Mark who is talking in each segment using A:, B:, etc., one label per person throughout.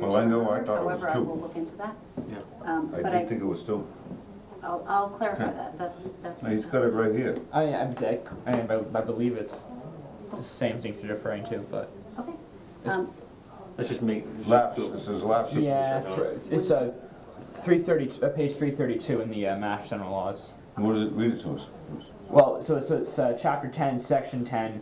A: Oh, I know, I
B: or-
A: thought it was
B: However, I
A: two.
B: will look into that.
C: Yeah.
B: Um,
A: I
B: But
A: did
B: I,
A: think it was two.
B: I'll, I'll clarify
A: Okay.
B: that, that's, that's.
A: No, he's got it right here.
D: I, I, I, I believe it's the same thing you're referring to, but
B: Okay.
D: It's-
B: Um,
C: Let's just make.
A: Lapse, it says lapses.
D: yeah, it's- it's a three thirty, uh, page three thirty-two in the uh, Mass General Laws.
A: What does it, read it to us.
D: Well, so so it's uh, chapter ten, section ten.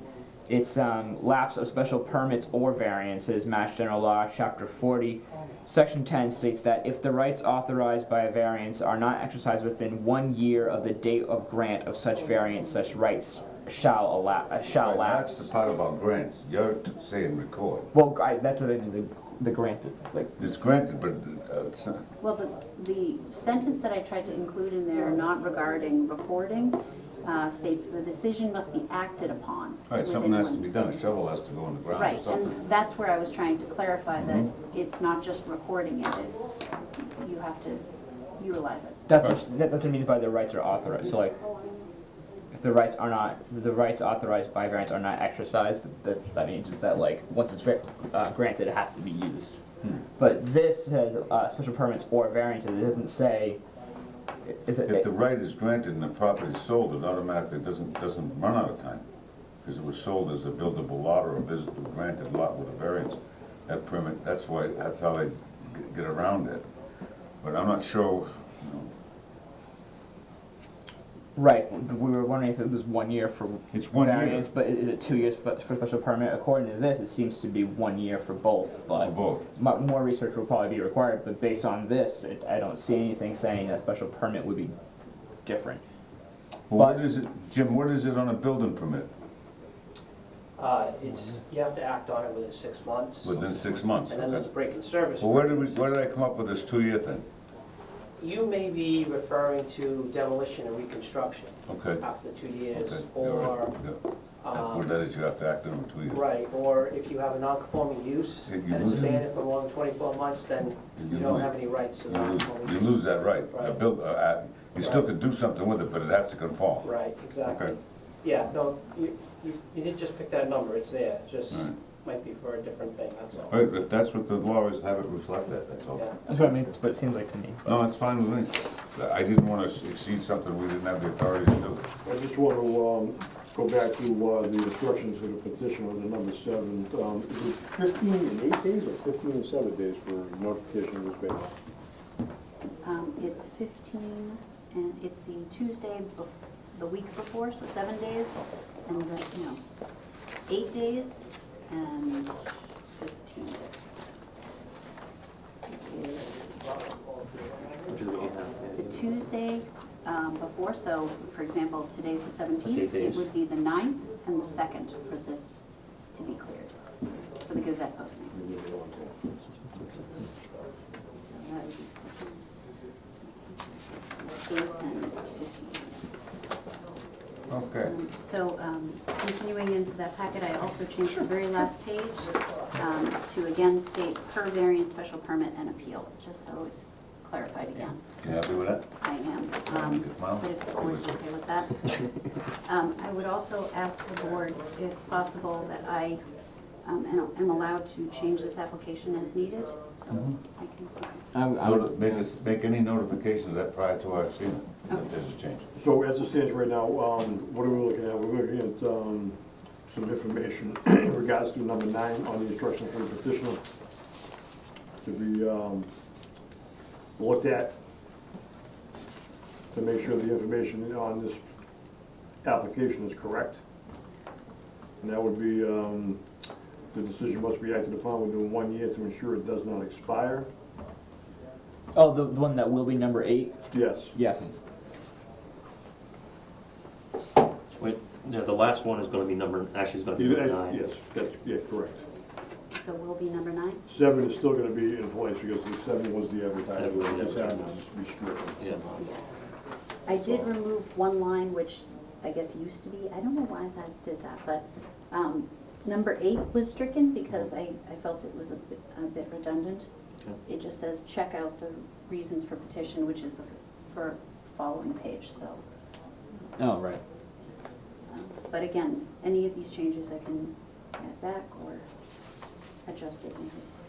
D: It's um, lapse of special permits or variances. Mass General Law, chapter forty, section ten states that if the rights authorized by a variance are not exercised within one year of the date of grant of such variance, such rights shall allow uh, shall
A: Right,
D: lapse.
A: That's the part about grants. You're t- saying record.
D: Well, I, that's what they did, the, the grant, like,
A: It's granted, but uh, it's not.
B: Well, the, the sentence that I tried to include in there, not regarding recording, uh, states the decision must be acted upon.
A: Right, something
B: within
A: has to
B: one-
A: be done, a shovel has to go in the ground or
B: Right,
A: something. Mm-hmm.
B: and that's where I was trying to clarify that it's not just recording it, it's, you have to utilize it.
D: that's what, that, that's what I mean by the rights are authorized, so like, if the rights are not, the rights authorized by variance are not exercised, that, that means is that like, once it's ver- uh, granted, it has to be used.
A: Hmm.
D: But this says, uh, special permits or variances, it doesn't say, is it,
A: If the right is granted and the property is sold, it automatically doesn't, doesn't run out of time. Because it was sold as a buildable lot or a visible granted lot with a variance. That permit, that's why, that's how they g- get around it. But I'm not sure, you know,
D: right, we were wondering if it was one year for
A: it's one year
D: variance, but i- is it two years for, for special permit? According to this, it seems to be one year for both, but.
A: for both.
D: Mo- More research will probably be required, but based on this, it- I don't see anything saying that special permit would be different.
A: Well,
D: But-
A: what is it, Jim, what is it on a building permit?
E: Uh, It's, you have to act on it within six months, and
A: Within six months?
E: then there's a
A: okay?
E: break in service.
A: Well, where did we, where did I come up with this two-year thing?
E: You may be referring to demolition and reconstruction
A: Okay,
E: after two
A: okay.
E: years,
A: you're right,
E: or,
A: yeah.
E: um,
A: Where that is, you have to act on it two years.
E: right, or if you have a non-conforming use,
A: You- you
E: and it's
A: lose it.
E: abandoned for more than twenty-four months, then
A: You
E: you don't
A: lose-
E: have any rights to
A: You lose, you
E: non-conforming.
A: lose that right. A
E: Right.
A: bill, uh, uh, you still could do something with it, but it has to conform.
E: Right, exactly.
A: Okay.
E: Yeah, no, you, you you did just pick that number, it's there, It's just
A: Right.
E: might be for a different thing, that's all.
A: Right, if that's what the law is, have it reflect that, that's all.
E: Yeah.
D: That's what I mean, what it seems like to me.
A: No, it's fine with me. I didn't wanna exceed something we didn't have the authority to do.
F: I just want to um, go back to uh, the instructions of the petitioner, the number seven. Um, It was 15 and eight days or 15 and seven days for notification of this waiver?
B: Um, it's fifteen, and it's the Tuesday bef, the week before, so seven days, and the, no, eight days and fifteen days.
C: Which is what you have.
B: The Tuesday, um, before, so for example, today's the seventeenth,
C: That's eight
B: it
C: days.
B: would be the ninth and the second for this to be cleared, for the Gazette posting. So that would be second, eight and fifteen days.
A: Okay.
B: Um, So um, continuing into that packet, I also changed the very last page um, to again state per variance special permit and appeal, just so it's clarified again.
A: You happy with that?
B: I am, um, but if the board's okay with that. Um, I would also ask the board, if possible, that I um, am am allowed to change this application as needed, so I can, okay.
D: I,
A: Noti- Make us, make any notifications of that prior to our seeing it, that
B: Okay.
A: there's a change.
F: So as it stands right now, um, what are we looking at? We're looking at um, some information in regards to number nine on the instructions from the petitioner to be um, looked at to make sure the information on this application is correct. And that would be, um, the decision must be acted upon within one year to ensure it does not expire.
D: oh, the, the one that will be number eight?
F: Yes.
D: Yes.
C: Wait, yeah, the last one is gonna be number, actually it's gonna be
F: You-
C: number nine.
F: Yes, that's, yeah, correct.
B: so we'll be number nine?
F: Seven is still gonna be in place because the seven was the advertisement,
C: Yeah.
F: this happens to be stricken.
C: Yeah.
B: Yes. I did remove one line, which I guess used to be, I don't know why that did that, but um, number eight was stricken because I, I felt it was a bit a bit redundant.
C: Okay.
B: It just says, check out the reasons for petition, which is the f- for following page, so.
D: Oh, right.
B: um, But again, any of these changes I can add back or adjust as needed.